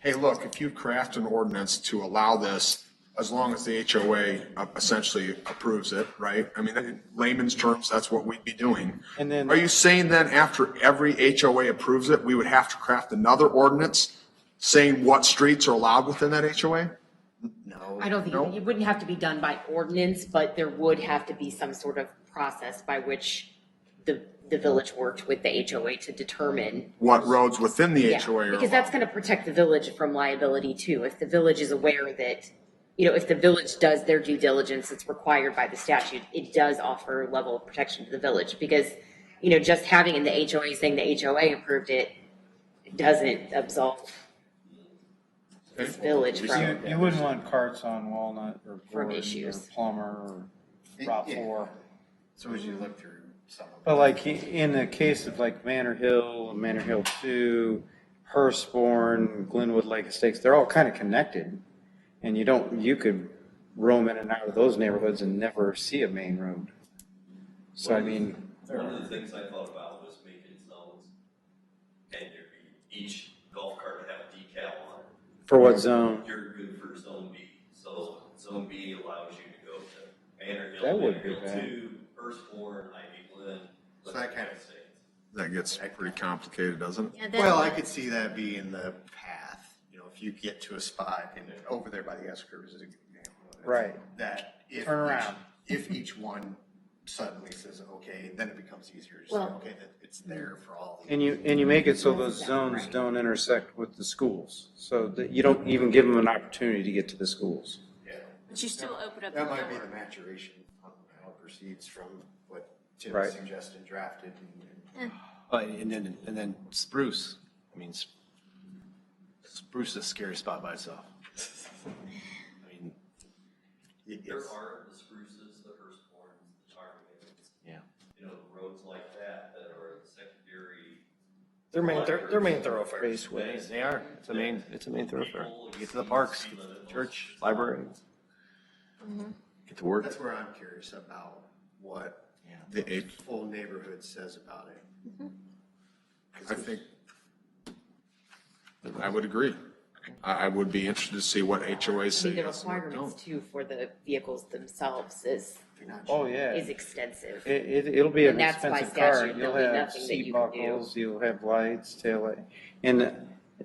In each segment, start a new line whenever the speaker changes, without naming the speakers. hey, look, if you craft an ordinance to allow this, as long as the HOA uh, essentially approves it, right? I mean, in layman's terms, that's what we'd be doing.
And then-
Are you saying then after every HOA approves it, we would have to craft another ordinance saying what streets are allowed within that HOA?
I don't think,
No.
it wouldn't have to be done by ordinance, but there would have to be some sort of process by which the, the village worked with the HOA to determine.
What roads within the
Yeah,
HOA are allowed?
Because that's gonna protect the village from liability too. If the village is aware that, you know, if the village does their due diligence that's required by the statute, it does offer a level of protection to the village. Because, you know, just having in the HOA saying the HOA approved it doesn't absolve this village
You,
from,
you wouldn't want carts on Walnut or
From
Gordon or
issues.
Plummer or
It-
Route
yeah.
Four.
So as you look through some of
But like i- in the case of like Manor Hill, Manor Hill Two, Hurstbourne, Glenwood Lake Estates, they're all kind of connected. And you don't, you could roam in and out of those neighborhoods and never see a main road. So I mean,
One of the things I thought about was making zones, and there'd be, each golf cart would have a decal on it.
for what zone?
You're good for zone B, so zone B allows you to go to Manor Hill,
That
Manor
wouldn't be
Hill
bad.
Two, Firstborn, Ivy Glen.
So that kind of-
Estate.
That gets pretty complicated, doesn't it?
them. Well, I could see that being the path, you know, if you get to a spot and over there by the S curves is an example. of it,
Right.
That if.
Turn
each-
around.
If each one suddenly says, okay, then it becomes easier to say,
Well-
okay, that it's there for all.
And you, and you make it so those zones
Right.
don't intersect with the schools. So that you don't even give them an opportunity to get to the schools.
Yeah.
But you still open up the
That might be the
door.
maturation on how it proceeds from what Tim
Right.
suggested drafted and.
But, Uh, and then, and then spruce, I mean, s- spruce is a scary spot by itself. I mean,
it-
There
it's-
are the spruces, the firstborns, the ptarmigans,
yeah.
you know, roads like that that are the secondary.
Their main, thor- their main thoroughfares.
thoroughfares.
They, they are, it's a main, it's a main thoroughfare. You Get to the parks, get to the church, library. Get to work.
That's where I'm curious about what
Yeah.
the full neighborhood says about it.
I think, I would agree. I, I would be interested to see what HOAs
I
say.
mean, the
yes and what don't.
requirements too for the vehicles themselves is,
Oh, yeah.
is extensive.
It, it, it'll be an
And that's by
expensive car.
statute,
You'll
there'll be
have
nothing that
seat
you can do.
buckles, you'll have lights, tail light. And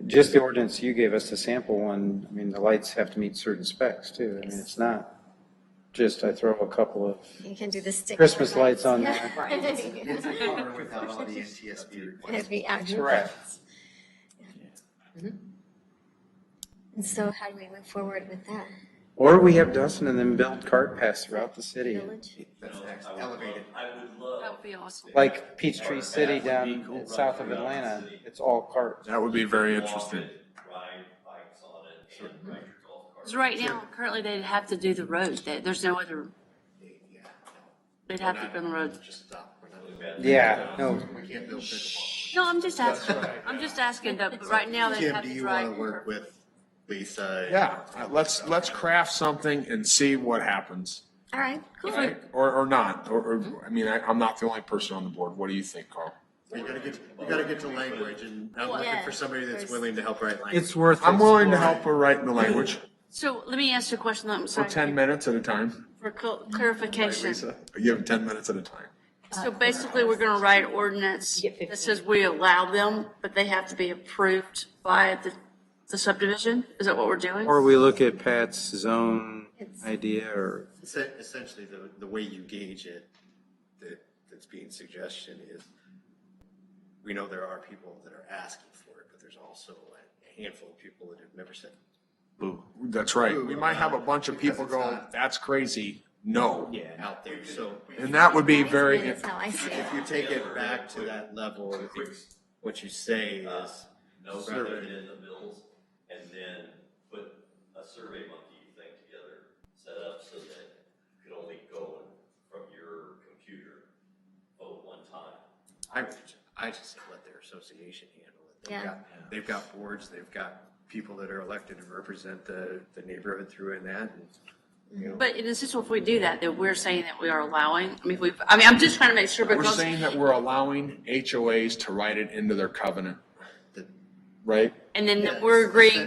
just the ordinance you gave us, the sample one, I mean, the lights have to meet certain specs too. I mean, it's not just I throw a couple of
You can do the stick.
Christmas lights on there.
It's a car without all the NTSB requirements.
It'd be actual
Correct.
lights.
Mm-hmm.
And so how do we move forward with that?
Or we have Dustin and then build cart paths throughout the city,
Village?
That's next,
I would love-
elevated.
I would love.
That would be awesome.
like Peachtree City down south of Atlanta. It's all cart.
That would be very
Walk
interesting.
it, Ride bikes on it, and ride your golf cart.
Because right now, currently, they'd have to do the road. There- There's no other,
Yeah, no,
they'd have to go on the road.
Just stop. We're not-
Yeah, no,
We can't build pickleball.
No, I'm just asking, I'm just asking, though, but right now, they'd
Tim,
have
do
to
you want
drive.
to work with Lisa?
Yeah, uh, let's, let's craft something and see what happens,
All right, cool.
right? Or, or not, or, or, I mean, I, I'm not the only person on the board. What do you think, Carl?
We gotta get, we gotta get to language and I'm looking for
Yeah.
somebody that's
There's-
willing to help write language.
it's worth.
I'm willing to
exploring.
help her write in the language
So let me ask you a question, though, I'm
for
sorry.
ten minutes at a time.
For cl-
Right,
clarification.
Lisa, you have ten minutes at a time.
So basically, we're gonna write ordinance
You get 15.
that says we allow them, but they have to be approved by the, the subdivision? Is that what we're doing?
Or we look at Pat's zone
It's-
idea or.
Essen- e-, Essentially, the, the way you gauge it, that, that's being suggestion is, we know there are people that are asking for it, but there's also a handful of people that have never said.
Boo.
That's right. We might have a bunch of people
Because it's
go,
not-
that's crazy, no.
Yeah. Out there, so
And that would be
That's
very,
how I see it.
if you take it back to that level, it's, what you say is,
No, rather than the bills, and then put a survey monkey thing together, set up so that you could only go in from your computer vote one time.
I, I just say let their association handle it. They've
Yeah.
got- They've got boards, they've got people that are elected to represent the, the neighborhood through and that, and
But in essence, if we do that, then we're saying that we are allowing, I mean, we, I mean, I'm just trying to make sure
we're
because,
saying that we're allowing HOAs to write it into their covenant,
the
right?
and then
Yeah,
we're
it's
agreeing